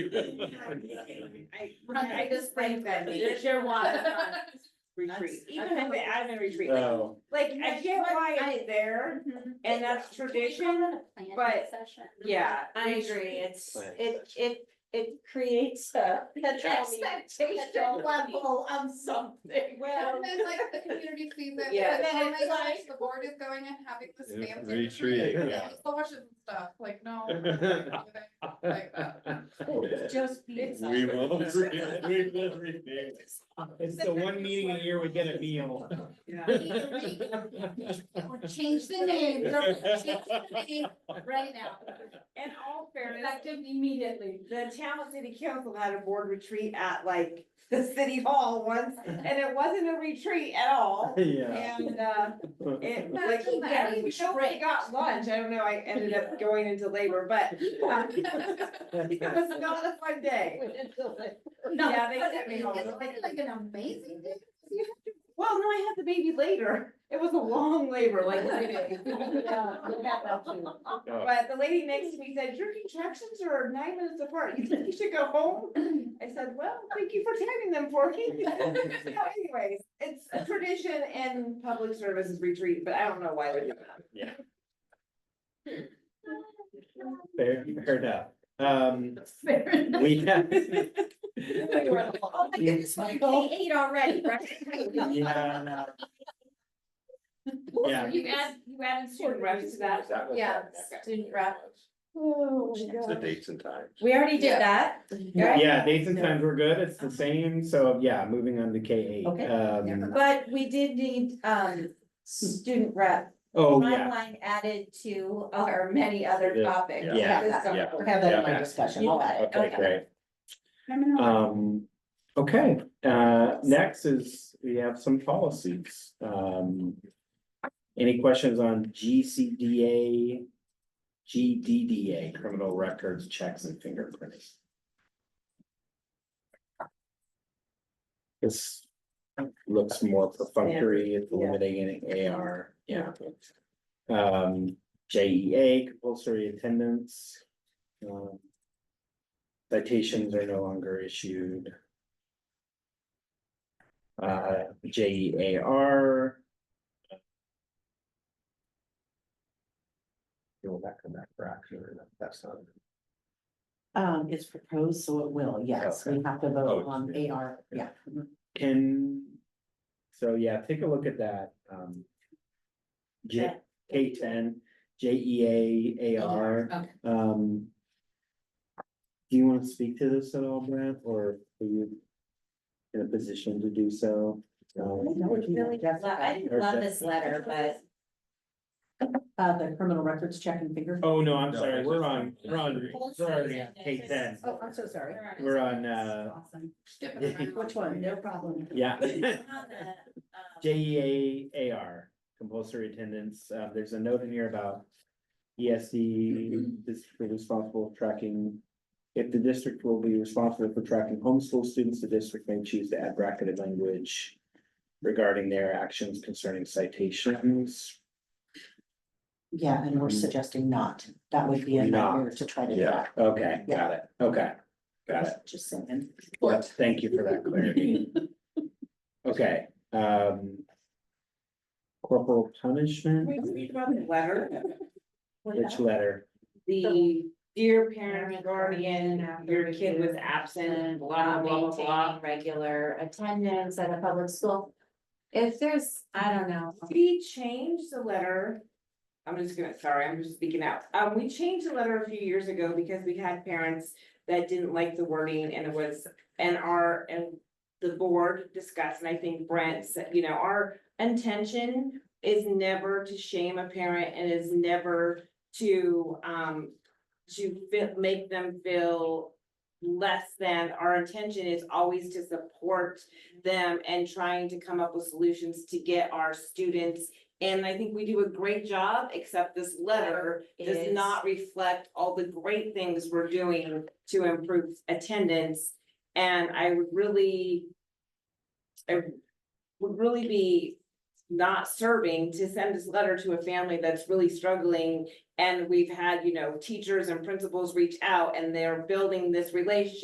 I, I just think that There's your one. Retreat. Even if it- I'm in retreat, like- No, like, I get why it's there, and that's tradition, but- yeah. I agree, it's, Planning it, it, it creates a, an expectation level of something. Well, And then like the community sees it, Yeah. and then oh And my it's gosh, like- the board is going and having this Yeah, fancy. retreat, retreat, yeah. with Squashes and stuff, like, no. I'm not gonna do that. Like that. Just We will. we will review. It's the one meeting a year we get a meal. Change the name, girl, change the name right now. In all fairness, Effective immediately. the Talent City Council had a board retreat at like the city hall once, and it wasn't a retreat at all. Yeah. And, uh, it, like, yeah, we only got lunch, I don't know, I ended up going into labor, but, um, it was not a fun day. Yeah, they sent me home. It's been like an amazing day. Well, no, I had the baby later. It was a long labor, like three days. But the lady next to me said, your contractions are nine minutes apart. You think you should go home? I said, well, thank you for timing them for me. So anyways, it's a tradition in public services retreat, but I don't know why they do that. Fair, fair enough. Um, we have. Oh my goodness, we ate already, right? Yeah. Yeah. You add, you added student reps to that. Yeah, student rep. Oh, The dates and times. We already did that. right? Yeah, dates and times were good. It's the same. So yeah, moving on to K eight. Okay. Um, But we did need, um, student rep. oh, yeah, Timeline added to our many other Yeah. topics. Yeah. This summer. Yeah. Have that in Yeah. my discussion, You I'll got add it. it. okay, great. Um, okay, uh, next is, we have some policies, um. Any questions on GCDA? GDDA, criminal records, checks and fingerprinting? This looks more perfunctory, it's limiting in AR, yeah. Um, JEA, compulsory attendance. Um, citations are no longer issued. Uh, J E A R. Go back to that for action or not, that's not. Um, it's proposed, so it will, yes, we have to vote Oh, on yeah. AR, yeah. Can, so yeah, take a look at that, um. J, K ten, J E A A R, Okay. um. Do you wanna speak to this at all, Brent, or are you in a position to do so? Um, Really love- I didn't love this letter, but Uh, the criminal records check and finger. Oh, no, I'm No, sorry, it's we're just- on, we're on, we're on K ten. Oh, I'm so sorry. We're on, uh, Awesome. Skipping around. Which one? No problem. yeah. on the, um, J E A A R, compulsory attendance, uh, there's a note in here about. E ESD, district responsible for tracking. If the district will be responsible for tracking homeschool students, the district may choose to add bracketed language. Regarding their actions concerning citations. Yeah, and we're suggesting not, that would be a Not. nightmare to try to do that. Okay, got it, okay, got it. Just saying. Yep, Thank you for that clarity. Okay, um. Corporal punishment, We read about the letter, which letter? the dear parent, guardian, your kid was absent, blah, blah, blah, blah. maintaining regular attendance at a public school. If there's, I don't know, We changed the letter. I'm just gonna, sorry, I'm just speaking out. Um, we changed the letter a few years ago because we had parents that didn't like the wording and it was, and our, and the board discussed, and I think Brent said, you know, our intention is never to shame a parent and is never to, um, to feel, make them feel less than, our intention is always to support them and trying to come up with solutions to get our students. And I think we do a great job, except this letter does Is- not reflect all the great things we're doing to improve attendance. And I would really, I would really be not serving to send this letter to a family that's really struggling And we've had, you know, teachers and principals reach out and they're building this relationship.